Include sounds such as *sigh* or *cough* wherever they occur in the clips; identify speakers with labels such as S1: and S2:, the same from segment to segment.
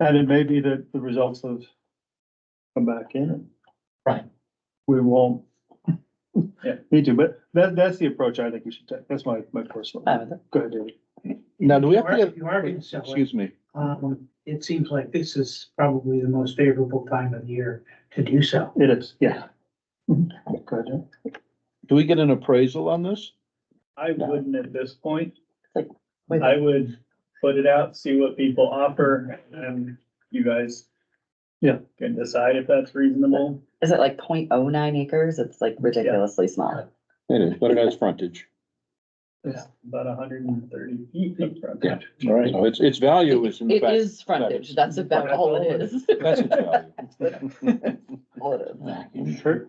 S1: And it may be that the results have come back in.
S2: Right.
S1: We won't.
S2: Yeah.
S1: Need to, but that, that's the approach I think we should take. That's my, my personal,
S3: Uh,
S4: Um,
S3: the-
S1: go ahead, David.
S5: Now, do we
S4: You
S5: have to
S4: are,
S5: get,
S4: you are gonna sell it.
S5: excuse me,
S4: Um, it seems like this is probably the most favorable time of year to do so.
S1: It is, yeah. Mm-hmm. Go ahead, Jim.
S5: do we get an appraisal on this?
S2: I wouldn't at this point.
S3: Like, wait.
S2: I would put it out, see what people offer, and you guys.
S1: Yeah.
S2: Can decide if that's reasonable.
S3: Is it like 0.09 acres? It's like ridiculously small.
S5: It is, but it has frontage.
S2: It's About hundred and thirty feet of frontage.
S5: All right. So its, its value is in
S3: It
S5: fact.
S3: is frontage. That's about all it is.
S5: *laughs* That's its value.
S3: All it is.
S1: Kurt?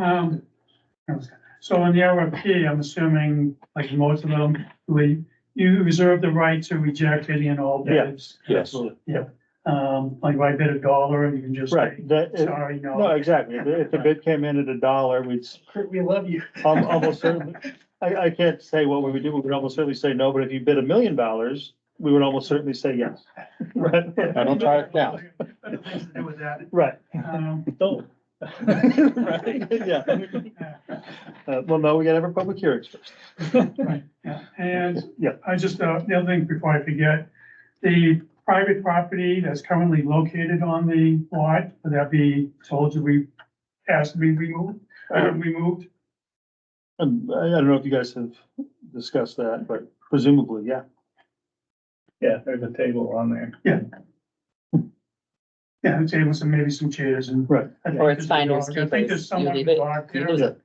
S6: Um, so on the RFP, I'm assuming, like most of them, we, you reserve the right to reject any and all
S1: Yeah.
S6: bids.
S5: *laughs* Yes.
S6: Um, like if I bid a dollar, you can just say,
S1: Right, that, it-
S6: sorry,
S1: no,
S6: no.
S1: exactly. If- If the bid came in at a dollar, we'd s-
S2: Kurt, we love you.
S1: al- almost certainly, I, I can't say what we would do. We would almost certainly say no, but if you bid a million dollars, we would almost certainly say
S2: *laughs*
S1: yes. Right,
S5: I don't try it now.
S6: *laughs* With that,
S1: *laughs* right.
S6: um,
S2: *laughs* Don't.
S1: Right, *laughs* yeah. Uh, well, no, we gotta have a public hearing first.
S6: yeah, and
S1: Yeah.
S6: I just, uh, the other thing before I forget, the private property that's currently located on the lot, would that be told to be, asked to be removed, uh,
S3: Uh-huh.
S6: removed?
S1: Um, I, I don't know if you guys have discussed that, but presumably, yeah.
S2: Yeah, there's a table on there.
S6: Yeah, the tables and maybe some chairs and.
S1: Right.
S6: I think
S3: Or
S6: there's
S3: it's
S6: a
S3: finders
S6: dog. I think there's
S3: keepers. You
S6: someone
S3: leave it,
S6: locked
S3: you
S6: there.
S3: lose *laughs* it.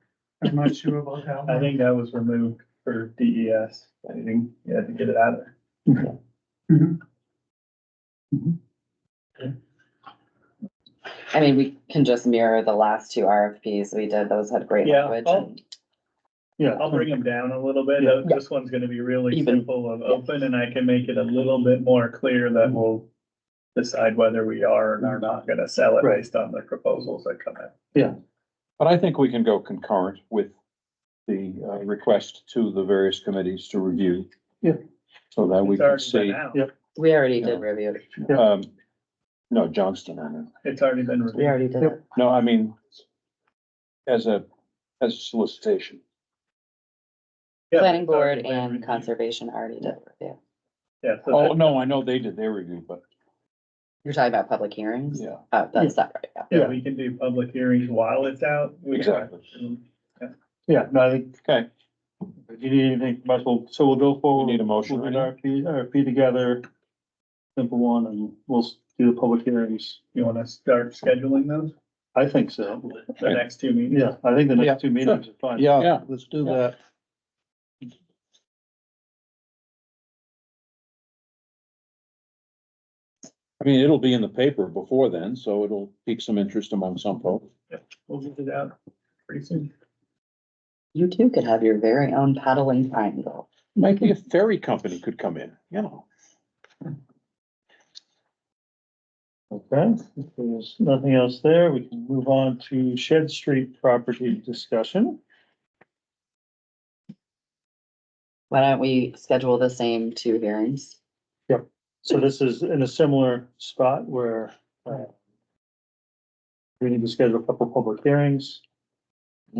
S6: I'm not sure about that
S2: I
S6: one.
S2: think that was removed for DES. I think you had to get it out of there.
S6: Mhm.
S3: I mean, we can just mirror the last two RFPs we did. Those had great
S2: Yeah,
S3: language.
S2: I'll-
S3: and-
S1: Yeah.
S2: I'll bring them down a little bit.
S1: Yeah.
S2: This one's gonna be really
S3: Even.
S2: simple and open and I can make it a little bit more clear that we'll decide whether we are and are not gonna sell it
S1: Right.
S2: based on the proposals that come in.
S5: But I think we can go concurrent with the uh, request to the various committees to review.
S1: Yeah.
S5: So that we
S2: It's
S5: can
S2: already
S5: see,
S2: been out.
S1: yeah.
S3: We already did
S5: Yeah.
S3: review. it.
S1: Yeah.
S5: um, no, Johnston, I mean,
S2: It's already been
S3: We
S2: reviewed.
S3: already did
S1: Yep.
S3: it.
S5: no, I mean, as a, as a solicitation.
S2: Yeah,
S3: Planning
S2: it's already
S3: board
S2: been
S3: and
S2: reviewed.
S3: conservation already did review.
S2: Yeah, so
S5: Oh,
S2: that,
S5: no, I know they did their review, but
S3: You're talking about public hearings?
S5: yeah,
S3: Oh, that's not right. yeah.
S2: yeah, we can do public hearings while it's out. We can-
S5: Exactly.
S1: Yeah, no, I think,
S5: okay,
S1: if you need anything, might as well, so we'll go
S5: we
S1: forward.
S5: need a motion.
S1: We'll do an
S5: right?
S1: RFP, RFP together, simple one, and we'll s- do the public hearings.
S2: You wanna start scheduling those,
S1: I think so.
S2: the next two meetings?
S1: Yeah, I think the
S5: Yeah,
S1: next two meetings are fine.
S5: Yeah, let's do
S1: Yeah.
S5: that. I mean, it'll be in the paper before then, so it'll pique some interest among some folks.
S2: We'll get it out pretty soon.
S3: You too could have your very own paddling triangle.
S5: Maybe a ferry company could come in, you know.
S1: Okay, if there's nothing else there, we can move on to Shed Street property discussion.
S3: Why don't we schedule the same two hearings?
S1: So this is in a similar spot where uh, we need to schedule a couple of public hearings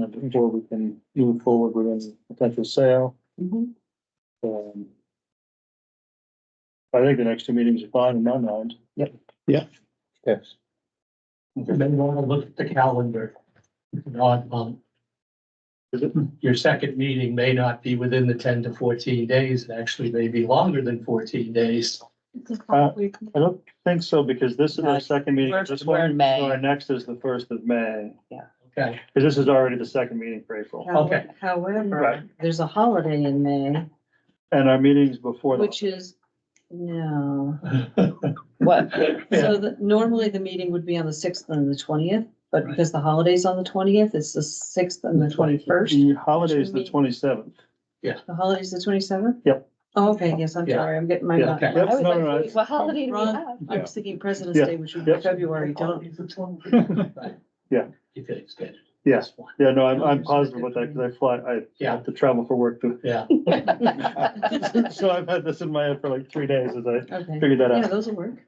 S1: uh, before we can move forward with any potential sale.
S3: Mhm.
S1: Um, I think the next two meetings are fine in my mind.
S5: Yes.
S4: And then you wanna look at the calendar. It's an odd month. Your second meeting may not be within the ten to fourteen days, it actually may be longer than fourteen days.
S1: Uh, I don't think so because this is our
S3: No,
S1: second meeting.
S3: we're-
S1: This
S3: we're in
S1: one,
S3: May.
S1: so Our next is the first of May,
S4: Okay,
S1: because this is already the second meeting for April.
S7: Howe-
S4: Okay.
S1: Right.
S7: However, there's a holiday in May,
S1: And our meetings before that.
S7: which is, no.
S3: What?
S7: So that normally the meeting would be on the sixth and the twentieth, but because the holiday's on the twentieth, it's the sixth and the twenty-first.
S1: The holiday is the
S7: Which
S1: twenty-seventh.
S7: The holiday's the twenty-seventh? Oh,
S1: Yep.
S7: Okay, yes, I'm
S4: Yeah.
S7: sorry, I'm getting my,
S1: Yeah.
S7: mind-
S4: Okay.
S3: I
S1: Yep,
S3: was
S1: no,
S3: like,
S1: no,
S3: wait,
S1: it's-
S3: what holiday do we
S7: Wrong.
S3: have?
S7: I
S5: Yeah.
S7: was thinking President's
S1: Yeah.
S7: Day, which would be
S1: Yep.
S7: February, don't.
S1: Yeah.
S4: You feel it's good.
S1: Yeah. Yeah, no, I'm, I'm
S7: Understood.
S1: positive about that because I fly, I
S4: Yeah.
S1: have to travel for work too.
S4: Yeah.
S1: *laughs* So I've had this in my head for like three days as I
S7: Okay,
S1: figured that
S7: yeah,
S1: out.
S7: those will work.